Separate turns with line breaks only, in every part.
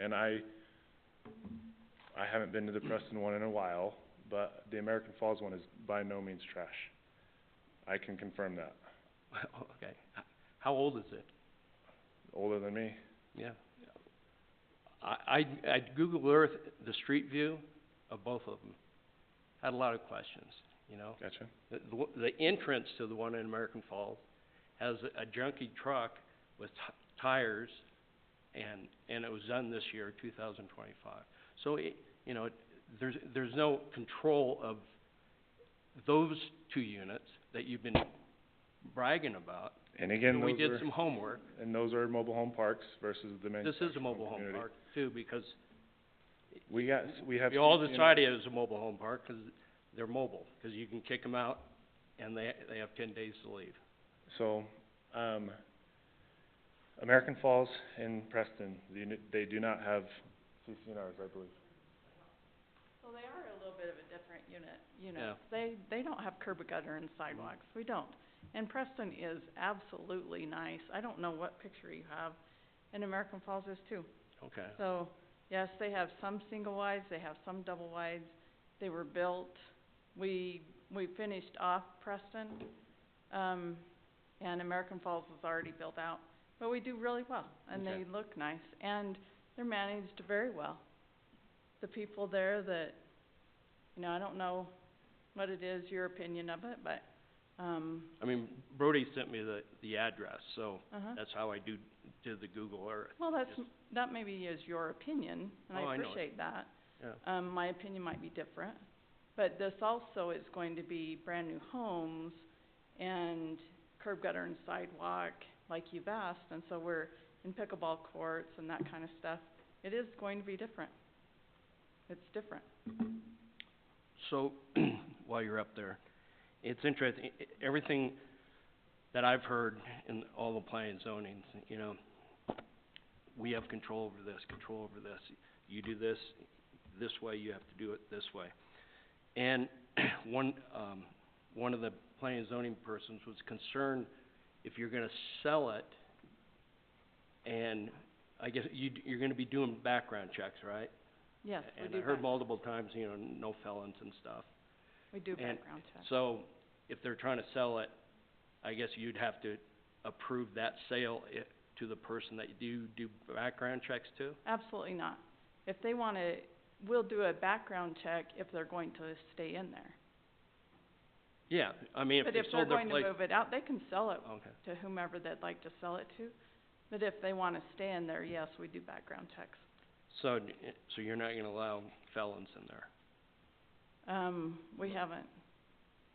and I, I haven't been to the Preston one in a while, but the American Falls one is by no means trash. I can confirm that,
Okay, H- how old is it?
older than me.
Yeah. I, I'd, I'd Google Earth the street view of both of them. Had a lot of questions, you know?
Gotcha.
The, the w- the entrance to the one in American Falls has a junky truck with t- tires, and, and it was done this year, two thousand twenty-five. So it, you know, it, there's, there's no control of those two units that you've been bragging about.
And again,
And we
those
did
are,
some homework,
and those are mobile home parks versus the
this is
manufactured
a mobile home
community.
park too, because
We got, s- we have.
we all
some communities-
decided it was a mobile home park, 'cause they're mobile, 'cause you can kick them out, and they, they have ten days to leave.
So, um, American Falls and Preston, the uni- they do not have CCNRs, I believe.
Well, they are a little bit of a different unit,
Yeah.
unit. They, they don't have curb and gutter and sidewalks, we don't. And Preston is absolutely nice, I don't know what picture you have, and American Falls is too.
Okay.
So, yes, they have some single wides, they have some double wides, they were built, we, we finished off Preston, um, and American Falls was already built out. But we do really well, and
Okay.
they look nice, and they're managed very well. The people there that, you know, I don't know what it is, your opinion of it, but, um,
I mean, Brody sent me the, the address, so
uh-huh.
that's how I do, did the Google Earth.
Well, that's,
Just-
that maybe is your opinion, and
Oh,
I
I know it.
appreciate that.
Yeah.
Um, my opinion might be different, but this also is going to be brand new homes and curb gutter and sidewalk, like you've asked, and so we're in pickleball courts and that kind of stuff. It is going to be different. It's different.
So, while you're up there, it's interesting, e- everything that I've heard in all the planning zonings, you know, we have control over this, control over this, you do this, this way, you have to do it this way. And one, um, one of the planning and zoning persons was concerned if you're gonna sell it, and I guess you, d- you're gonna be doing background checks, right?
Yes, we
And I
do
heard
back,
multiple times, you know, no felons and stuff.
we do
and-
background checks.
So, if they're trying to sell it, I guess you'd have to approve that sale i- to the person that you do background checks to?
Absolutely not. If they wanna, we'll do a background check if they're going to stay in there.
Yeah, I mean, if
But
they
if they're
sold their
going to
place-
move it out, they can sell it
Okay,
to whomever they'd like to sell it to. But if they wanna stay in there, yes, we do background checks.
so, d- i- so you're not gonna allow felons in there?
Um, we haven't,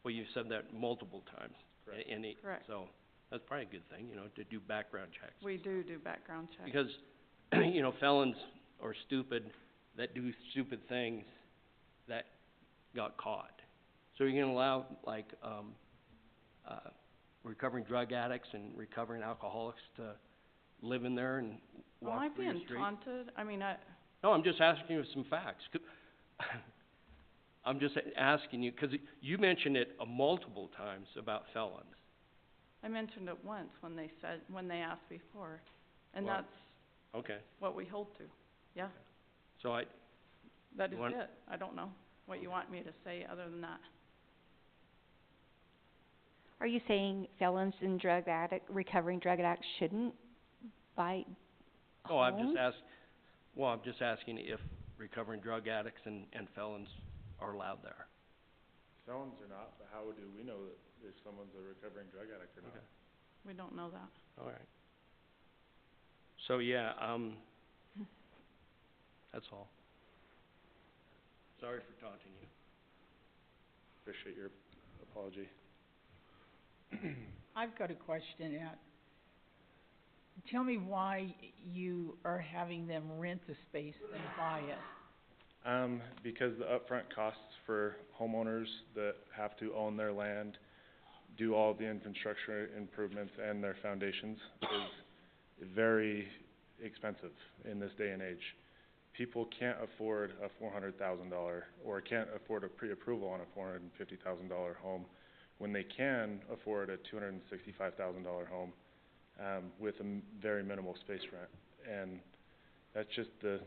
Well, you've said that multiple times. a-
Correct.
and it-
Correct.
So, that's probably a good thing, you know, to do background checks.
we do do background checks.
Because, you know, felons are stupid, that do stupid things that got caught. So you're gonna allow, like, um, uh, recovering drug addicts and recovering alcoholics to live in there and
Am
walk
I
through your
being
streets?
taunted? I mean, I,
No, I'm just asking you some facts. Could- I'm just a- asking you, 'cause you mentioned it uh, multiple times about felons.
I mentioned it once when they said, when they asked before, and
Well-
that's
Okay,
what we hold to. Yeah,
so I,
that
You
is
want-
it. I don't know what
Okay.
you want me to say other than that.
Are you saying felons and drug addict, recovering drug addicts shouldn't buy homes?
Oh, I'm just ask, well, I'm just asking if recovering drug addicts and, and felons are allowed there.
Felons or not, but how do we know that if someone's a recovering drug addict or not?
Okay.
We don't know that.
All right. So, yeah, um, that's all. Sorry for taunting you.
Appreciate your apology.
I've got a question, Ed. Tell me why you are having them rent the space than buy it.
Um, because the upfront costs for homeowners that have to own their land, do all the infrastructure improvements and their foundations is very expensive in this day and age. People can't afford a four hundred thousand dollar, or can't afford a pre-approval on a four hundred and fifty thousand dollar home when they can afford a two hundred and sixty-five thousand dollar home, um, with a m- very minimal space rent. And that's just the,